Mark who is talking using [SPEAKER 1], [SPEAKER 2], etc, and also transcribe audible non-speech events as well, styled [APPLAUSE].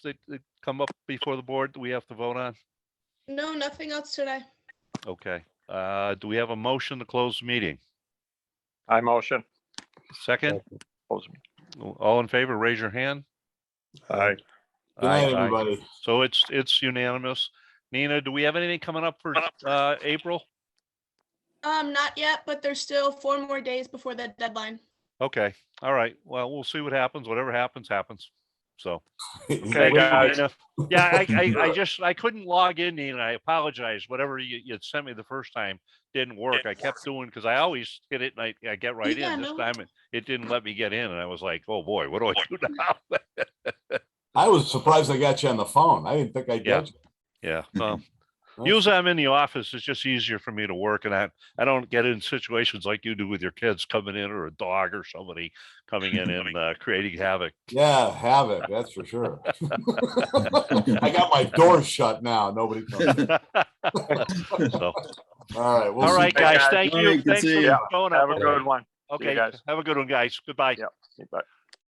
[SPEAKER 1] that that come up before the board that we have to vote on?
[SPEAKER 2] No, nothing else today.
[SPEAKER 1] Okay, uh, do we have a motion to close the meeting?
[SPEAKER 3] I motion.
[SPEAKER 1] Second,
[SPEAKER 3] Close me.
[SPEAKER 1] all in favor, raise your hand.
[SPEAKER 3] Aye.
[SPEAKER 4] Good
[SPEAKER 1] Aye,
[SPEAKER 4] night,
[SPEAKER 1] aye.
[SPEAKER 4] [LAUGHS] everybody.
[SPEAKER 1] So it's, it's unanimous. Nina, do we have anything coming up for, uh, April?
[SPEAKER 2] Um, not yet, but there's still four more days before the deadline.
[SPEAKER 1] Okay, all right. Well, we'll see what happens. Whatever happens, happens. So.
[SPEAKER 3] Hey,
[SPEAKER 1] Thank you,
[SPEAKER 3] guys.
[SPEAKER 1] Nina. Yeah, I, I, I just, I couldn't log in, Nina. I apologize. Whatever you, you had sent me the first time didn't work. I kept doing, because I always hit it and I, I get right
[SPEAKER 2] Yeah,
[SPEAKER 1] in. This
[SPEAKER 2] no.
[SPEAKER 1] time it, it didn't let me get in and I was like, oh boy, what do I
[SPEAKER 2] [LAUGHS]
[SPEAKER 1] do now? [LAUGHS]
[SPEAKER 4] I was surprised I got you on the phone. I didn't think I'd
[SPEAKER 1] Yeah.
[SPEAKER 4] get you.
[SPEAKER 1] Yeah, well,
[SPEAKER 4] Well-
[SPEAKER 1] usually I'm in the office. It's just easier for me to work and I, I don't get in situations like you do with your kids coming in or a dog or somebody coming in and, uh, creating havoc.
[SPEAKER 4] [LAUGHS] Yeah, havoc, that's for sure. [LAUGHS] I got my door shut now. Nobody. comes.
[SPEAKER 1] So,
[SPEAKER 4] All right. we'll
[SPEAKER 1] all
[SPEAKER 4] see-
[SPEAKER 1] right,
[SPEAKER 3] guys.
[SPEAKER 1] guys, thank
[SPEAKER 5] All
[SPEAKER 1] you.
[SPEAKER 5] right, good
[SPEAKER 1] Thanks
[SPEAKER 5] seeing
[SPEAKER 1] for
[SPEAKER 5] you.
[SPEAKER 1] showing up.
[SPEAKER 3] Have a good one. See you
[SPEAKER 1] Okay,
[SPEAKER 3] guys.
[SPEAKER 1] have a good one, guys. Goodbye.
[SPEAKER 3] Yep. Bye.